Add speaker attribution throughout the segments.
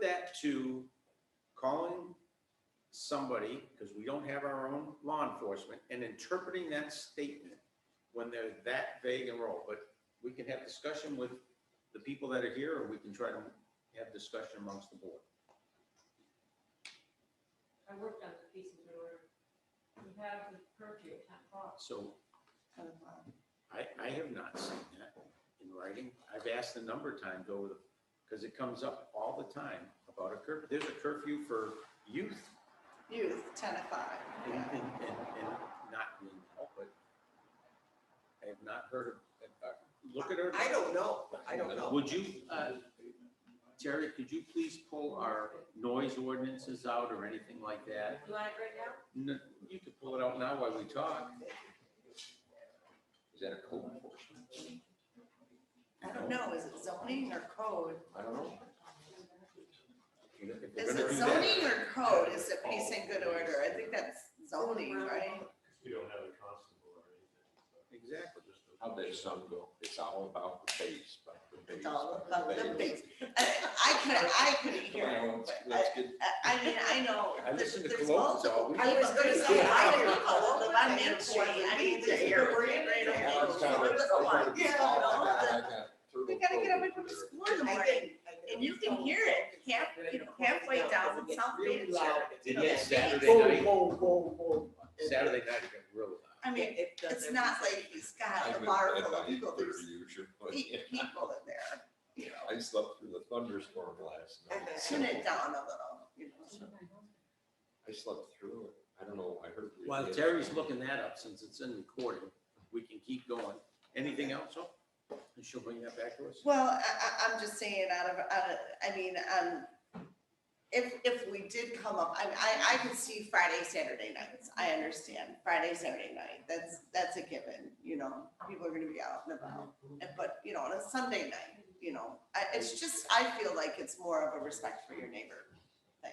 Speaker 1: that to calling somebody, because we don't have our own law enforcement, and interpreting that statement when they're that vague and roll. But we can have discussion with the people that are here, or we can try to have discussion amongst the board.
Speaker 2: I worked on the pieces of order. We have the purview at ten o'clock.
Speaker 1: So I, I have not seen that in writing. I've asked a number of times over the, because it comes up all the time about a curfew. There's a curfew for youth
Speaker 3: Youth, ten to five.
Speaker 1: and, and, and and not being helped, but I have not heard of, uh, look at her.
Speaker 4: I don't know, I don't know.
Speaker 1: Would you, uh, Terry, could you please pull our noise ordinances out or anything like that?
Speaker 2: You want it right now?
Speaker 1: No, You could pull it out now while we talk.
Speaker 5: Is that a code enforcement?
Speaker 3: I don't know, is it zoning or code?
Speaker 5: I don't know.
Speaker 1: If they're
Speaker 3: Is
Speaker 1: gonna
Speaker 3: it
Speaker 1: do that-
Speaker 3: zoning or code? Is it peace and good order? I think that's zoning, right?
Speaker 6: We don't have a constable or anything, so.
Speaker 1: Exactly.
Speaker 6: Just a-
Speaker 5: How did some go? It's all about the base, but the base.
Speaker 3: It's all about the base. I I could, I couldn't hear
Speaker 5: Come on,
Speaker 3: it.
Speaker 5: let's-
Speaker 3: but I-
Speaker 5: let's get-
Speaker 3: I, I mean, I know.
Speaker 1: I listen to
Speaker 3: there's
Speaker 1: Cologne's
Speaker 3: multiple-
Speaker 1: always.
Speaker 3: I was gonna say, I don't know, although I'm in
Speaker 4: That's why
Speaker 3: Shady, I
Speaker 4: we
Speaker 3: need to
Speaker 4: did
Speaker 3: hear.
Speaker 4: it.
Speaker 3: We're in right now.
Speaker 5: I was kinda- I was kinda
Speaker 3: Yeah, no,
Speaker 5: I got
Speaker 3: We
Speaker 5: turtle
Speaker 3: gotta get up
Speaker 5: code
Speaker 3: and go to
Speaker 5: there.
Speaker 3: school in the
Speaker 4: I
Speaker 3: morning,
Speaker 4: think-
Speaker 3: and you can hear it half, you know, halfway down in South
Speaker 4: Really
Speaker 3: Manchester.
Speaker 4: loud.
Speaker 1: Did
Speaker 3: Yeah,
Speaker 1: that
Speaker 3: they-
Speaker 1: Saturday
Speaker 4: Whoa,
Speaker 1: night,
Speaker 4: whoa, whoa, whoa.
Speaker 1: Saturday night it got real loud.
Speaker 3: I mean,
Speaker 4: It does
Speaker 3: it's not
Speaker 4: everything.
Speaker 3: like he's got
Speaker 5: I'm
Speaker 3: a
Speaker 5: in
Speaker 3: bar
Speaker 5: bed
Speaker 3: full of
Speaker 5: by
Speaker 3: people,
Speaker 5: 8:30
Speaker 3: there's
Speaker 5: usually.
Speaker 3: eight people in there, you know.
Speaker 5: I slept through the thunderstorm last
Speaker 4: And
Speaker 5: night.
Speaker 4: then-
Speaker 3: Tune it down a little, you know. so.
Speaker 5: I slept through it. I don't know, I heard. the-
Speaker 1: While Terry's looking that up, since it's in recording, we can keep going. Anything else, Hope? And she'll bring that back to us?
Speaker 3: Well, I, I, I'm just saying out of, out of, I mean, um, if, if we did come up, I, I, I could see Friday, Saturday nights. I understand Friday, Saturday night. That's, that's a given, you know, people are gonna be out and about. And- But, you know, on a Sunday night, you know, I, it's just, I feel like it's more of a respect for your neighbor thing,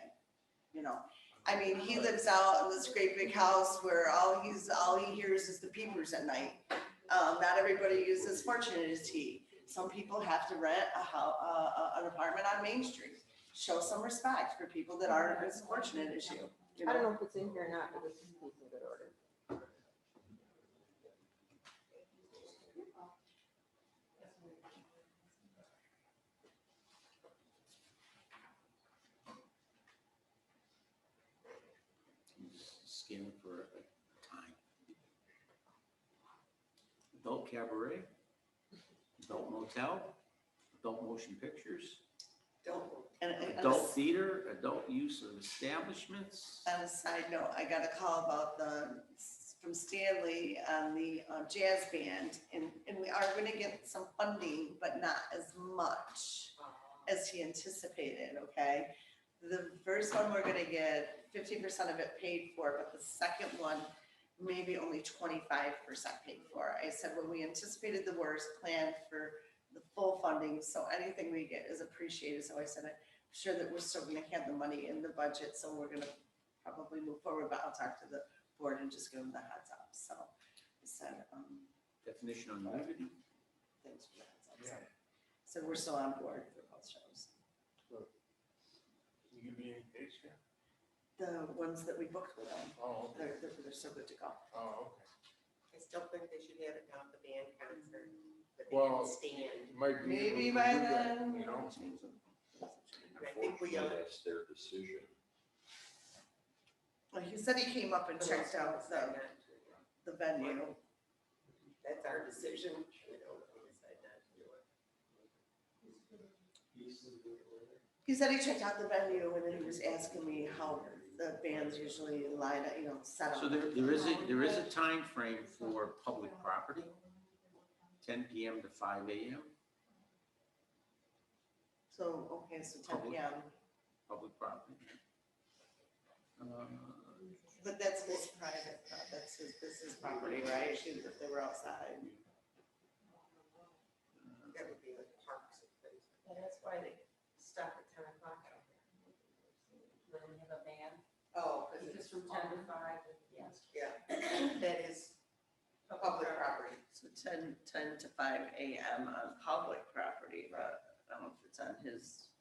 Speaker 3: you know? I mean, he lives out in this great big house where all he's, all he hears is the peepers at night. Um, not everybody is as fortunate as he some people have to rent a house, uh, an apartment on Main Street. Show some respect for people that aren't as fortunate as you, you
Speaker 7: I don't
Speaker 3: know?
Speaker 7: know if it's in here or not, but this is in good order.
Speaker 1: Scan for a time. Adult cabaret, adult motel, adult motion pictures,
Speaker 3: Don't. And, and on a
Speaker 1: adult
Speaker 3: s- Uh,
Speaker 1: theater, adult use of establishments.
Speaker 3: on a side note, I got a call about the, from Stanley on the uh, jazz band. And, and we are gonna get some funding, but not as much as he anticipated, okay? The first one, we're gonna get fifty percent of it paid for, but the second one, maybe only twenty-five percent paid for. I said, when we anticipated the worst, planned for the full funding, so anything we get is appreciated, so I said, I'm sure that we're still gonna have the money in the budget, so we're gonna probably move forward, but I'll talk to the board and just give them the heads up, so. I said, um,
Speaker 1: Definition on nudity.
Speaker 3: thanks for the heads up, so. So we're still on board for both shows.
Speaker 6: You give me any dates here?
Speaker 3: The ones that we booked with them,
Speaker 6: Oh, okay.
Speaker 3: they're, they're, they're so good to go.
Speaker 6: Oh, okay.
Speaker 4: I still think they should have it down at the band concert, but they
Speaker 6: Well-
Speaker 4: can stand.
Speaker 6: You might be. able
Speaker 3: Maybe
Speaker 6: to
Speaker 3: by
Speaker 6: do that,
Speaker 3: then.
Speaker 6: You know?
Speaker 4: I think we
Speaker 3: uh,
Speaker 5: Unfortunately,
Speaker 4: are-
Speaker 5: That's their decision.
Speaker 3: Well, he said he came up and checked out the, the venue.
Speaker 4: That's our decision, you know, if we decide not to do it.
Speaker 3: He said he checked out the venue and then he was asking me how the bands usually line up, you know, set up.
Speaker 1: So there, there is a, there is a time frame for public property, ten PM to five AM,
Speaker 3: So, okay, so ten P M,
Speaker 1: public property. Uh,
Speaker 3: but that's his private, uh, that's his, this is property, right? She- If they were outside.
Speaker 4: That would be like parks and things.
Speaker 2: Yeah, that's why they stop at ten o'clock out there. When we have a band,
Speaker 4: Oh, because
Speaker 2: because it's
Speaker 4: it's
Speaker 2: from ten to five, yes.
Speaker 4: that is public property.
Speaker 3: So 10 10 to five A M on public property, but I don't know if it's on his